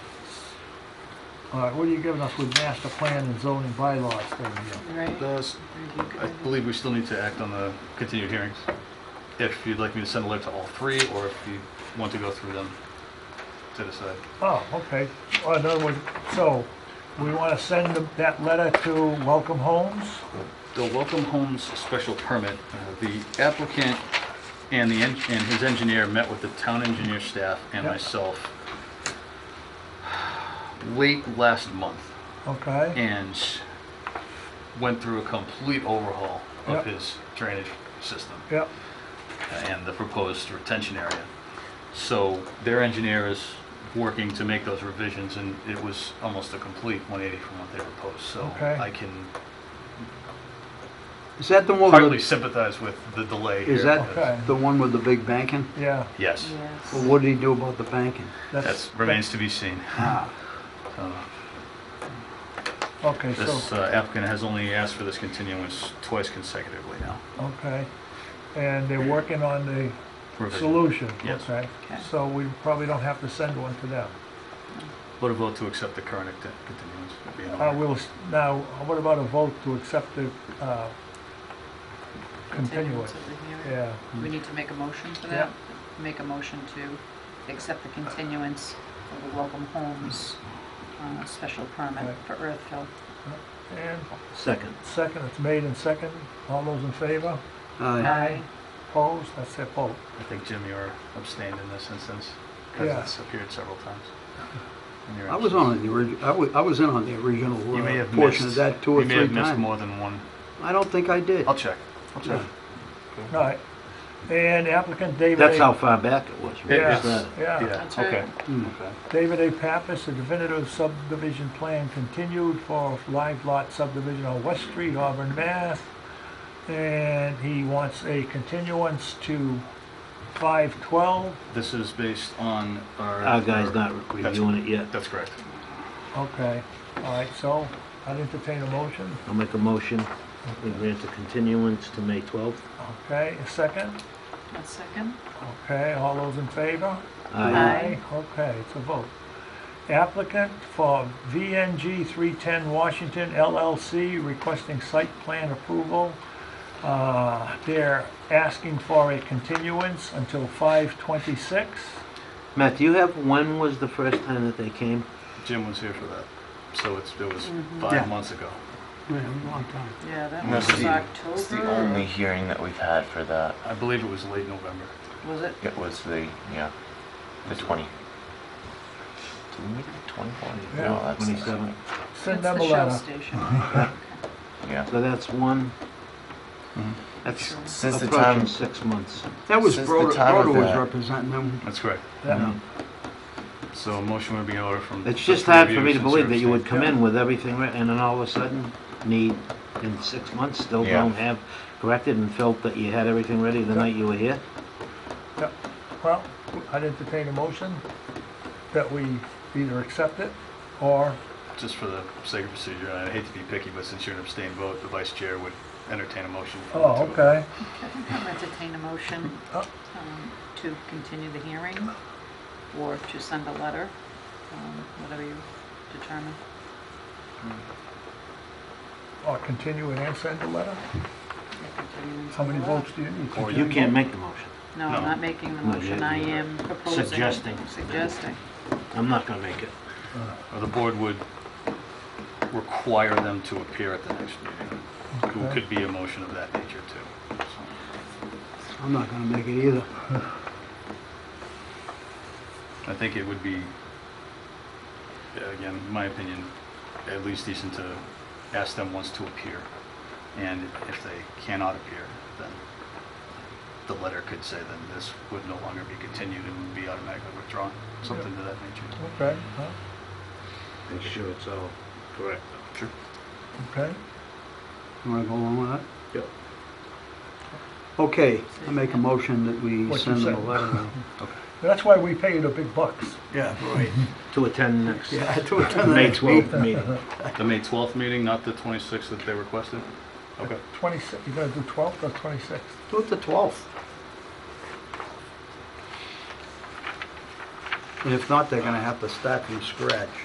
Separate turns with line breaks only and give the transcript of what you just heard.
All right, what are you giving us with master plan and zoning bylaws thing here?
Right.
Those-
Review
I
committee.
believe we still need to act on the continued hearings. If you'd like me to send a letter to all three, or if you want to go through them to decide.
Oh, okay. Well, in other words, so we want to send them- that letter to Welcome Homes?
The Welcome Homes special permit, uh, the applicant and the, en- and his engineer met with the town engineer staff and
Yep.
myself late last month.
Okay,
and went through a complete overhaul
Yep.
of his drainage system
yep,
and the proposed retention area. So their engineer is working to make those revisions, and it was almost a complete 180 from what they proposed. So
Okay.
I can
Is that the one
partly
with,
sympathize with the delay here.
is that
Okay.
the one with the big banking?
yeah.
Yes,
Yes.
Well, what did he do about the banking?
that remains to be seen.
Ah,
Uh,
Okay,
This
so,
uh, applicant has only asked for this continuance twice consecutively now.
okay. And they're working on the
Revision.
solution,
Yes.
okay?
Okay.
So we probably don't have to send one to them.
What a vote to accept the current act- continuance. would be in order.
Uh, we'll, s- now, what about a vote to accept the, uh, continuance?
Continuance of the hearing.
Yeah,
We need to make a motion for
Yeah.
that? Make a motion to accept the continuance of the Welcome Homes uh, special permit
Right.
for Earthville.
and
second.
second, it's made and second, all those in favor?
Aye.
Ah.
Aye.
Opposed, that's their vote.
I think, Jim, you were abstained in this instance,
Yeah.
because it's appeared several times. in your
I was
absence.
on the orig, I was, I was in on the original
You may
uh,
have
portion of
missed-
that two or
You
three
may have missed
times.
more than one.
I don't think I did.
I'll check. I'll check.
Yeah.
All right, and applicant David A.
Mm-hmm. That's how far back it was.
It-
Yeah,
it's-
yeah.
That's right.
Okay.
Hmm.
David A. Pappas, a definitive subdivision plan continued for live lot subdivision on West Street, Auburn, Mass. And he wants a continuance to five twelve,
This is based on our.
Our guy's not
That's-
reviewing it yet.
That's correct.
okay, all right, so I'd entertain a motion,
I'll make a motion, we grant the continuance to May 12th.
okay, a second,
A second?
okay, all those in favor?
Aye.
Okay, it's a vote. Applicant for VNG 310 Washington LLC requesting site plan approval. Uh, They're asking for a continuance until 5/26.
Matt, do you have, when was the first time that they came?
Jim was here for that, so it's, it was
Mm-hmm.
Yeah.
five months ago.
Yeah, a long time.
Yeah, that
That's
was
the- It's the only
October.
hearing that we've had for that.
I believe it was late November.
Was it?
It was the, yeah, the 20. Did we make it 24?
Yeah,
No, that's-
27.
Send
It's
them a
the Shell
letter.
station.
Yeah.
So that's one,
That's,
Since the
approaching
time,
six months.
that was
Since the
Broder,
time of
Broder was
that-
representing them.
That's correct.
Yeah.
So a motion would be in order from.
It's just hard for me to believe that you would come in with everything, right, and then all of a sudden, need, in six months, still
Yeah.
don't have corrected and felt that you had everything ready the night you were here?
Yeah. Well, I'd entertain a motion that we either accept it or,
Just for the sake of procedure, and I hate to be picky, but since you're an abstained vote, the vice chair would entertain a motion. for the two
oh,
of them.
okay.
I think I'll entertain a motion
Oh.
um, to continue the hearing or to send a letter, um, whatever you determine.
Or continue it and send a letter.
Continuance
How
of the
many
letter.
votes do you need?
Or
You can't make the motion.
No, I'm
No.
not making the
No,
motion,
yeah,
I
yeah.
am proposing.
Suggesting.
Suggesting.
I'm not gonna make it.
Or Uh, the board would require them to appear at the next meeting. It
Okay.
Could be a motion of that nature, too. So
I'm not gonna make it either.
I think it would be, yeah, again, my opinion, at least decent to ask them once to appear. And if they cannot appear, then the letter could say then this would no longer be continued and would be automatically withdrawn, something to that nature.
Okay, huh?
Make sure it's all correct.
Sure.
okay.
You wanna go along with that?
Yep.
Okay, I make a motion that we
What you
send them a
said.
letter.
That's why we pay you the big bucks.
Yeah, right.
To attend next,
Yeah, to attend the
May
next meeting.
12th meeting.
The May 12th meeting, not the 26th that they requested? Okay.
26, you gonna do 12th or 26th?
Do it the 12th. And if not, they're gonna have to start from scratch.